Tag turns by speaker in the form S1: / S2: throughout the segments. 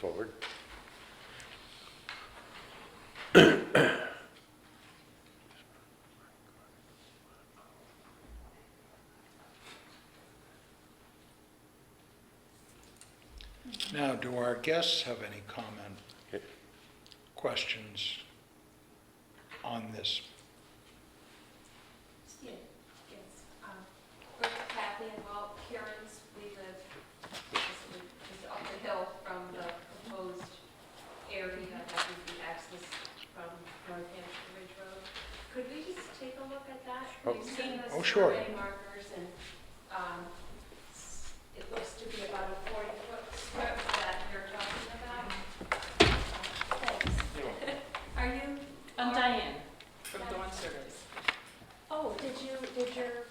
S1: forward.
S2: Now, do our guests have any comment,
S1: Okay.
S2: questions on this?
S3: Yeah, yes. Um, Rick, Kathy, and Walt, Karen's, we live just up the hill from the proposed area that would be accessed from North Hampshire Ridge Road. Could we just take a look at that?
S1: Oh.
S3: We've seen the
S2: Oh, sure.
S3: survey markers, and um, s- it looks to be about a 40-foot strip that you're talking about. Thanks. Are you?
S4: I'm Diane from
S3: Diane.
S4: Dawn Surveys.
S3: Oh, did you, did your
S4: It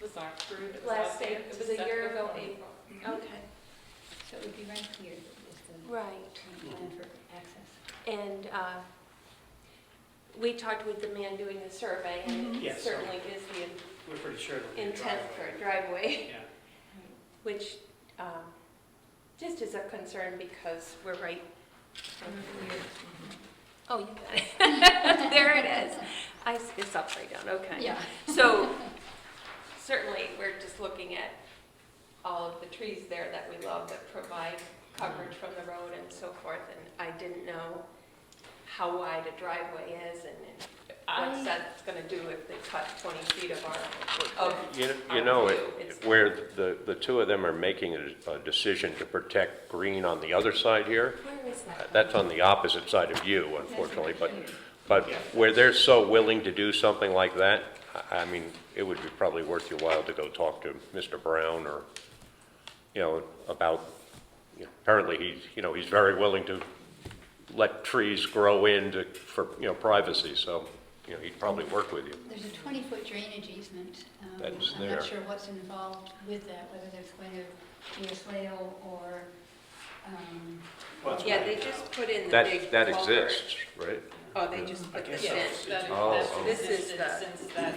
S4: was our crew. that was
S3: Last
S4: out there.
S3: day,
S4: It
S3: it
S4: was
S3: was a
S4: set
S3: year ago,
S4: before.
S3: April.
S4: Mm-hmm.
S3: Okay,
S5: So it would be right here that is the
S3: right.
S5: plan for access.
S3: And uh, we talked with the man doing the survey, and
S6: Yeah,
S3: it
S6: so-
S3: certainly is the
S6: We're pretty sure it'll be a
S3: intent
S6: driveway.
S3: for a driveway,
S6: Yeah,
S3: which um, just is a concern because we're right. Oh, you got it. There it is. I s it's upside down, okay.
S5: Yeah.
S3: So certainly, we're just looking at all of the trees there that we love that provide coverage from the road and so forth. And I didn't know how wide a driveway is and
S4: I-
S3: what that's going to do if they cut 20 feet of our, of
S1: You
S3: our
S1: you know, it-
S3: view. It's-
S1: where the, the two of them are making a a decision to protect green on the other side here,
S3: Where is that?
S1: that's on the opposite side of you, unfortunately, but, but where they're so willing to do something like that, I- I mean, it would be probably worth your while to go talk to Mr. Brown or, you know, about, you know, apparently he's, you know, he's very willing to let trees grow in to, for, you know, privacy, so, you know, he'd probably work with you.
S5: There's a 20-foot drainage easement. Um,
S1: That's
S5: I'm
S1: there.
S5: not sure what's involved with that, whether there's going to be a swale or, um,
S6: well, it's
S3: Yeah,
S6: right
S3: they
S6: now.
S3: just put in the big.
S1: That, that
S3: culvert.
S1: exists, right?
S3: Oh, they just
S6: I
S3: put
S6: guess
S3: this
S4: Yeah,
S3: in.
S6: so.
S4: that-
S1: Oh,
S4: that's
S1: oh.
S3: This is
S4: existed
S3: the-
S4: Since that,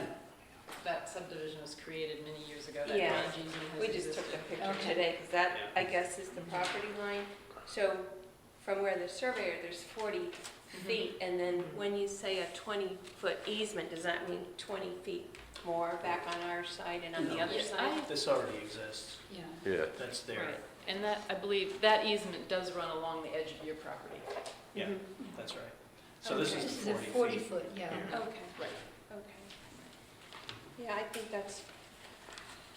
S4: that subdivision was created many years ago, that
S3: Yeah.
S4: drainage easement has
S3: We just took
S4: existed.
S3: the picture
S5: Okay.
S3: today, because that, I guess, is the property line. So from where the surveyor, there's 40
S4: Mm-hmm.
S3: feet, and then
S6: Mm-hmm.
S3: when you say a 20-foot easement, does that mean 20 feet more back on our side and on the
S6: No.
S3: other
S4: Yeah,
S3: side?
S6: This already exists,
S5: yeah.
S1: Yeah.
S6: that's
S4: I-
S6: there,
S4: Right, and that, I believe, that easement does run along the edge of your property.
S6: yeah,
S3: Mhm.
S6: that's right. So this
S5: Okay.
S6: is the
S5: a
S6: 40 feet.
S5: 40-foot, yeah.
S6: here.
S3: Okay,
S4: Right.
S3: okay. Yeah, I think that's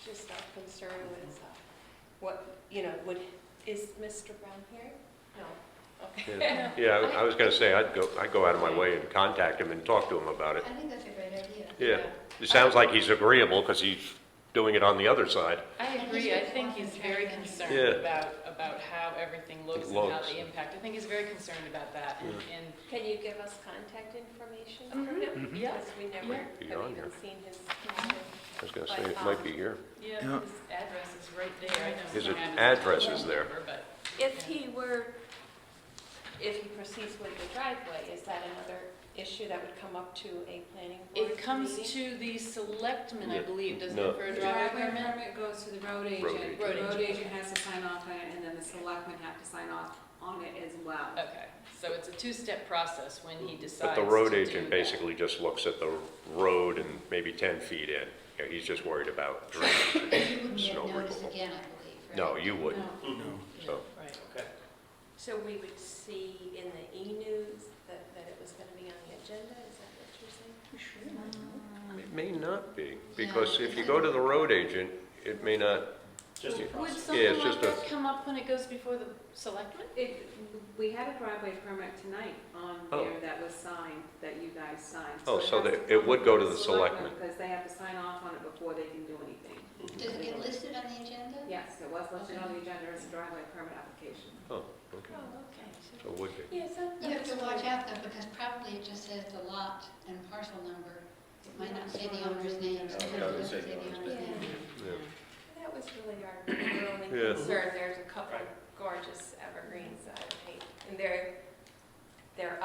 S3: just our concern was uh, what, you know, would, is Mr. Brown here? No.
S1: Yeah, Yeah, I I was gonna say, I'd go, I'd go out of my way and contact him and talk to him about
S5: I
S1: it.
S5: think that's a great idea.
S1: Yeah, it sounds like he's agreeable, because he's doing it on the other side.
S4: I
S5: he's
S4: agree, I
S5: really
S4: think
S5: walking
S4: he's very
S5: down.
S4: concerned
S1: Yeah.
S4: about, about how everything looks and how
S1: looks.
S4: the impact, I think he's very concerned about that, and, and
S3: Can you give us contact information from him?
S4: Mhm. Yeah.
S3: Because we never
S4: Yeah.
S3: have
S1: Be on
S3: even
S1: here.
S3: seen his.
S1: I was gonna say, it might be here.
S4: Yeah,
S2: Yeah.
S4: his address is right there, I know.
S1: His
S4: he had
S1: address is
S4: phone
S1: there.
S4: number, But
S3: If he were, if he proceeds with the driveway, is that another issue that would come up to a planning board?
S4: it comes
S3: meeting?
S4: to the selectmen, I
S1: Yeah.
S4: believe, doesn't
S1: No.
S4: it, for a
S7: The
S4: driveway
S7: driveway
S4: permit?
S7: permit goes to the road
S1: Road
S7: agent.
S1: agent.
S7: The
S4: Road
S7: road agent has to sign off on it, and then the selectmen have to sign off on it as well.
S4: Okay, so it's a two-step process when he decides
S1: But
S4: to
S1: the road
S4: do
S1: agent
S4: that.
S1: basically just looks at the road and maybe 10 feet in. You know, He's just worried about
S5: You
S1: drainage.
S5: wouldn't
S1: It's
S5: get
S1: no
S5: notice
S1: wiggle.
S5: again, I believe, right?
S1: No, you wouldn't,
S7: No.
S6: Mhm.
S1: so.
S4: Right,
S6: Okay,
S3: So we would see in the e-news that, that it was going to be on the agenda, is that what you're saying?
S5: Um,
S1: It may not be, because if you go to the road agent, it may not,
S6: just a
S4: Would
S1: Yeah,
S6: process.
S4: something
S1: it's
S4: like
S1: just a-
S4: that come up when it goes before the selectmen?
S7: It, we had a driveway permit tonight on
S1: Oh.
S7: there that was signed, that you guys signed.
S1: Oh, so
S7: has
S1: that-
S7: to
S1: it
S7: come
S1: would go to the selectmen.
S7: Because they have to sign off on it before they can do anything.
S5: Does it get listed on the agenda?
S7: Yes, it was listed on the agenda as a driveway permit application.
S1: oh, okay,
S3: Oh,
S1: so it would be.
S3: okay. Yes, that.
S5: You have to watch out though, because probably it just says the lot and parcel number. It might not say the owner's name. sometimes it doesn't say the owner's name.
S1: Yeah.
S3: That was really our our only
S1: Yeah.
S3: concern. There's a couple
S6: Right.
S3: gorgeous evergreens that I hate, and they're, they're